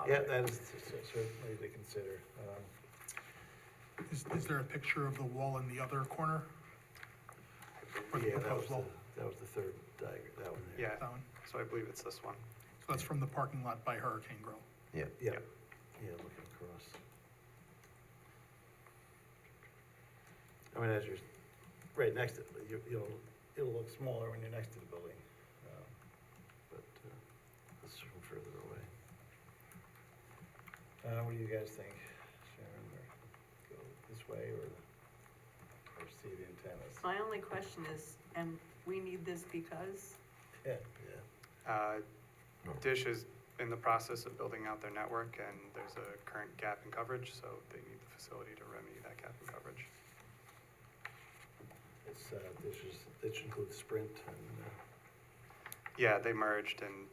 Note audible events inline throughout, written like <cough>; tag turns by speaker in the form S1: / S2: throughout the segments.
S1: Uh,
S2: Yeah, that is certainly to consider. Um,
S3: Is, is there a picture of the wall in the other corner? For the
S2: Yeah, that was,
S3: proposed wall.
S2: the- that was the third diagram, that one there.
S1: Yeah,
S3: That one?
S1: so I believe it's this one.
S3: So that's from the parking lot by Hurricane Grill.
S4: Yeah,
S2: Yeah, yeah, looking across. I mean, as you're right next to, it, you- you'll, it'll look smaller when you're next to the building. um, But uh, this is from further away. Uh, What do you guys think, Sharon, or go this way or, or see the antennas?
S5: My only question is, and we need this because,
S2: Yeah,
S1: Uh,
S2: Oh.
S4: No.
S1: Dish is in the process of building out their network, and there's a current gap in coverage, so they need the facility to remedy that gap in coverage.
S2: it's, uh, this is, this includes Sprint and uh,
S1: Yeah, they merged, and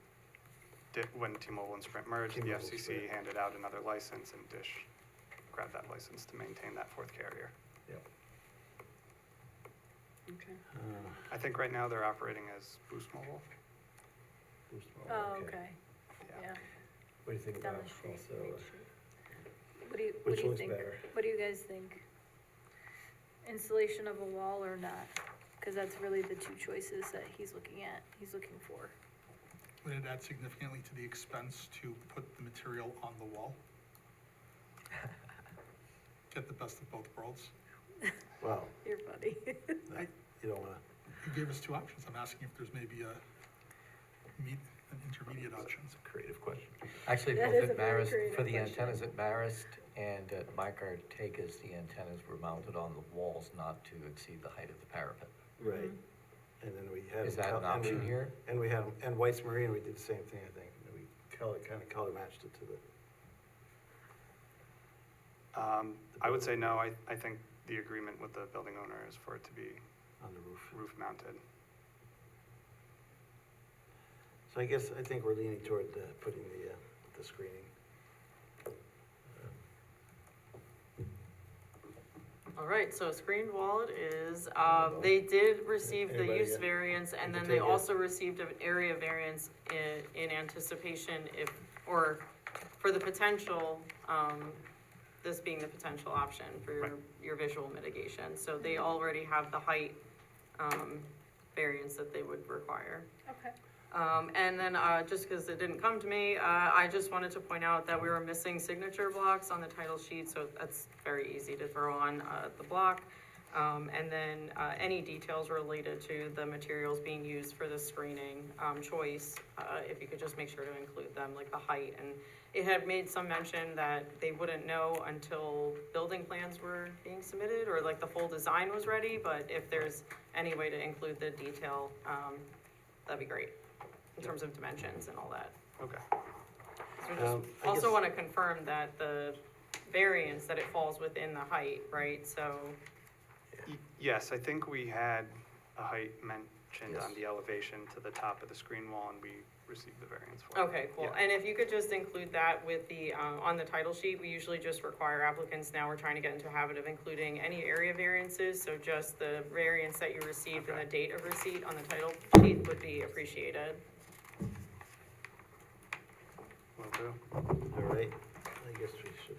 S1: Di- when T-Mobile and Sprint merged, the
S2: T-Mobile,
S1: FCC
S2: Sprint.
S1: handed out another license, and Dish grabbed that license to maintain that fourth carrier.
S5: okay.
S2: uh,
S1: I think right now they're operating as Boost Mobile.
S2: Boost Mobile.
S5: Oh, okay, yeah,
S2: What do you think
S6: down
S2: about
S6: the street,
S2: also,
S6: Main
S2: uh,
S6: Street. What do you, what
S2: which
S6: do you
S2: looks
S6: think,
S2: better?
S6: what do you guys think? Installation of a wall or not? Cause that's really the two choices that he's looking at, he's looking for.
S3: Would it add significantly to the expense to put the material on the
S2: <laughs>
S3: wall? Get the best of both worlds.
S2: Well,
S6: Your buddy. <laughs>
S2: I- you don't wanna,
S3: You gave us two options. I'm asking if there's maybe a meet, an intermediate option.
S2: it's a creative question.
S4: actually,
S6: That
S4: both
S6: is a
S4: at
S6: very
S4: Marist, for
S6: creative
S4: the
S6: question.
S4: antennas at Marist and at Mike Artega's, the antennas were mounted on the walls not to exceed the height of the parapet.
S2: Right.
S6: Mm-hmm.
S2: And then we had.
S4: Is
S2: them
S4: that an
S2: col- and we-
S4: option here?
S2: And we had, 'em- and White's Marine, we did the same thing, I think, and we color, kinda color matched it to the,
S1: Um, I would say no, I, I think the agreement with the building owner is for it to be
S2: on the roof.
S1: roof mounted.
S2: So I guess, I think we're leaning toward uh, putting the, uh, the screening.
S7: All right, so screened wall it is, um, they did receive the
S2: Anybody,
S7: use
S2: uh,
S7: variance,
S2: you
S7: and
S2: can
S7: then they
S2: take it.
S7: also received an area variance in, in anticipation if, or for the potential, um, this being the potential option for your,
S1: Right.
S7: your visual mitigation, so they already have the height, um, variance that they would require.
S6: Okay.
S7: Um, and then, uh, just because it didn't come to me, uh, I just wanted to point out that we were missing signature blocks on the title sheet, so that's very easy to throw on, uh, the block. Um, and then, uh, any details related to the materials being used for the screening, um, choice, uh, if you could just make sure to include them, like the height. And it had made some mention that they wouldn't know until building plans were being submitted, or like the full design was ready, but if there's any way to include the detail, um, that'd be great in terms of dimensions and all that.
S1: Okay.
S7: So we just
S2: Um, I
S7: also
S2: guess-
S7: want to confirm that the variance, that it falls within the height, right? So,
S1: Y- Yes, I think we had a height mentioned on
S4: Yes.
S1: the elevation to the top of the screen wall, and we received the variance for it.
S7: okay, cool.
S1: Yeah.
S7: And if you could just include that with the, uh, on the title sheet, we usually just require applicants, now we're trying to get into a habit of including any area variances, so just the variance that you received and the date of receipt on the title sheet would be appreciated.
S1: Will do.
S2: All right, I guess we should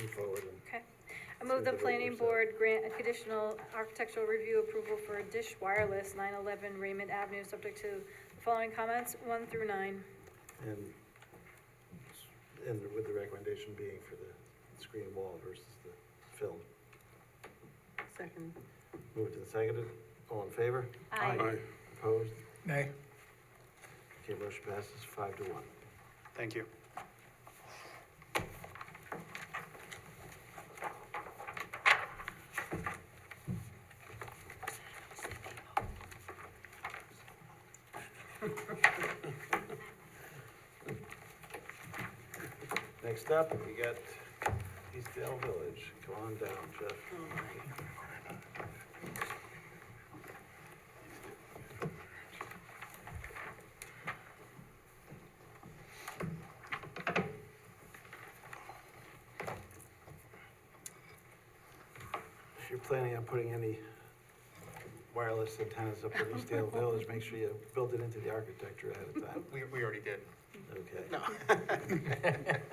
S2: move forward and
S6: Okay. I
S2: So
S6: move the
S2: the vote
S6: planning
S2: was, uh,
S6: board grant a conditional architectural review approval for Dish Wireless, nine eleven Raymond Avenue, subject to the following comments, one through nine.
S2: And, and with the recommendation being for the screen wall versus the film.
S5: Second.
S2: Moved and seconded, all in favor?
S6: Aye. Aye.
S2: Opposed?
S3: Nay.
S2: Okay, motion passes five to one.
S1: Thank you.
S2: Next up, we got Eastdale Village, come on down, Jeff. If you're planning on putting any wireless antennas up in Eastdale Village, make sure you build it into the architecture ahead of time.
S8: We, we already did.
S9: okay.
S2: No.